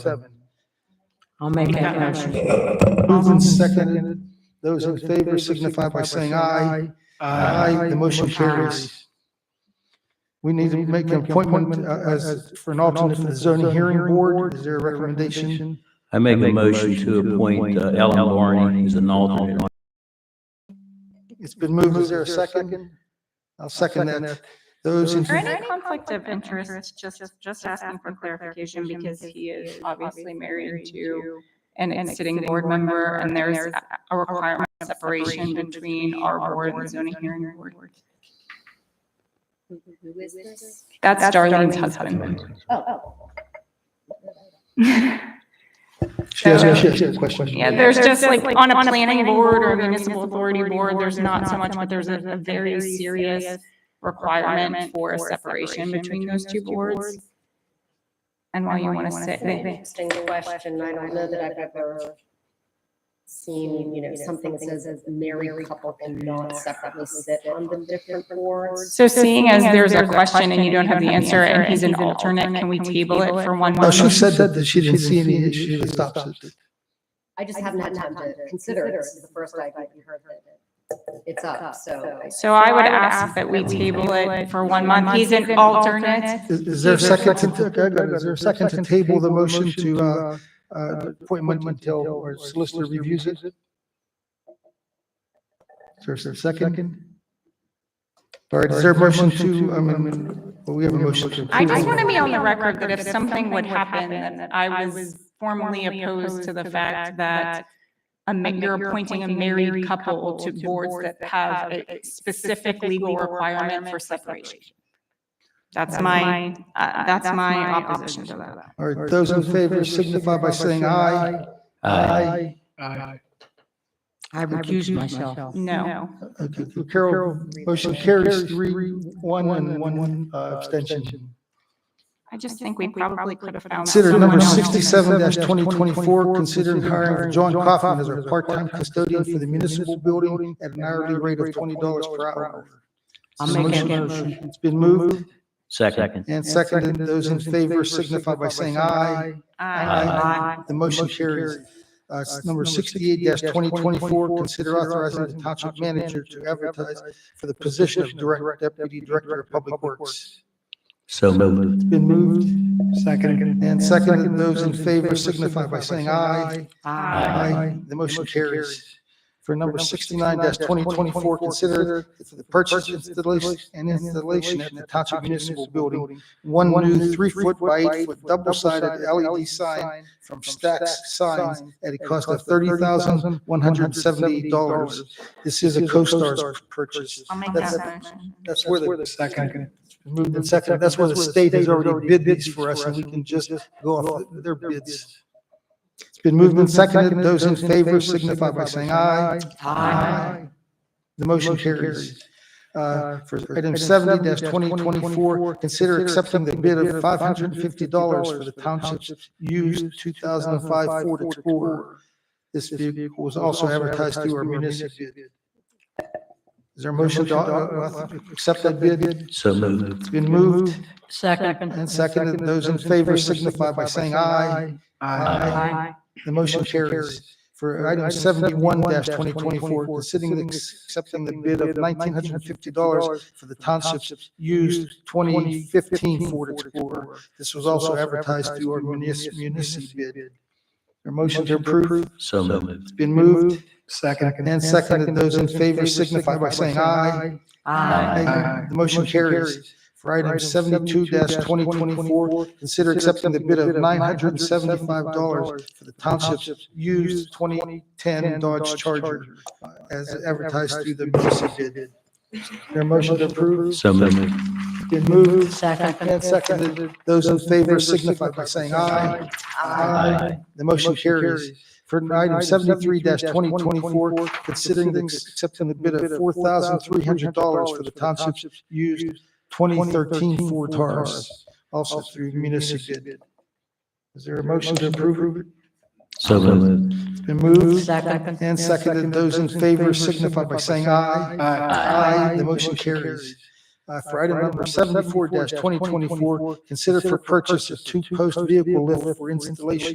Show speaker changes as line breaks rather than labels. seven.
I'll make that motion.
Moved and seconded. Those in favor signify by saying aye. Aye, the motion carries. We need to make an appointment uh, as, for an alternate for the zoning hearing board. Is there a recommendation?
I make a motion to appoint uh, Ellen Barney as an alternate.
It's been moved. Is there a second? I'll second that. Those in,
Is there any conflict of interest, just, just asking for clarification, because he is obviously married to an, an sitting board member, and there's a- a requirement of separation between our board and zoning hearing board.
Who is this? Oh,
That's Darlene's husband.
she has, she has a question.
Yeah, there's just like, on a planning board or municipal authority board, there's not so much, but there's a, a very serious requirement for separation between those two boards. And why you want to sit, they-
Interesting question. I don't know that I've ever seen, you know, something that says a married couple cannot separately sit on the different boards.
So seeing as there's a question and you don't have the answer and he's an alternate, can we table it for one
No,
month?
Oh, she said that, that she didn't see any issue that stops it.
I just haven't had time to consider it. This is the first I've even heard that it's up, so. I-
So I would ask that we table it for one month. He's an alternate.
Is, is there a second to, okay, good. is there a second to table the motion to, uh, uh, appointment until our solicitor reviews it? Is there is there a second? All right, is there a motion to, I mean, well, we have a motion to.
I just
approve.
want to be on the record that if something would happen, then I was formally opposed to the fact that a ma- you're appointing a married couple to boards that have a specific legal requirement for separation. That's my, uh, that's my opposition to that.
All right, those in favor signify by saying aye.
Aye.
I recuse myself.
No.
Okay, Carol, motion carries three, one, and one, one uh, abstention.
I just think we probably could have found.
Consider
someone
number
else.
sixty-seven twenty twenty-four, considering hiring John Coffin as our part-time custodian for the municipal building at an hourly rate of twenty dollars per hour.
I'll
So
make that
motion-
motion.
It's been moved
Second.
and seconded. Those in favor signify by saying aye.
Aye.
The motion carries. Uh, s- number sixty-eight twenty twenty-four, consider authorizing the township manager to advertise for the position of direct deputy director of public works.
So moved.
It's been moved. Seconded. And seconded. Those in favor signify by saying aye.
Aye.
Aye. The motion carries. For number sixty-nine twenty twenty-four, consider for the purchase installation and installation at the township municipal building, one new three-foot by eight-foot double-sided LED sign from Stacks Signs at a cost of thirty thousand, one hundred and seventy dollars. This is a co-star's purchase.
I'll make
That's-
that motion.
That's where the. Second. Moved and seconded. That's where the state has already bid these for us and we can just go off their bids. It's been moved and seconded. Those in favor signify by saying aye. The motion carries. Uh, For item seventy twenty twenty-four, consider accepting the bid of five hundred and fifty dollars for the township's used two thousand and five Ford Explorer. This vehicle was also advertised through our municipal bid. Is there a motion to uh, accept that bid?
So moved.
It's been moved
Second.
and seconded. Those in favor signify by saying aye.
Aye.
The motion carries. For item seventy-one twenty twenty-four, considering ex- accepting the bid of nineteen hundred and fifty dollars for the township's used twenty fifteen Ford Explorer. This was also advertised through our municipal bid. Your motion to approve?
So moved.
Been moved. Second. And seconded. Those in favor signify by saying aye.
Aye.
The motion carries. For item seventy-two twenty twenty-four, consider accepting the bid of nine hundred and seventy-five dollars for the township's used twenty ten Dodge Charger uh, as advertised through the municipal bid. Their motion to approve?
So moved.
Been moved.
Second.
And seconded. Those in favor signify by saying aye.
Aye.
The motion carries. For item seventy-three twenty twenty-four, considering the accepting the bid of four thousand three hundred dollars for the township's used twenty thirteen Ford Taurus, also through municipal bid. Is there a motion to approve? it?
So moved.
It's been moved
Second.
and seconded. Those in favor signify by saying aye. Aye. The motion carries. Uh, For item number seventy-four twenty twenty-four, consider for purchase of two post vehicle lift for installation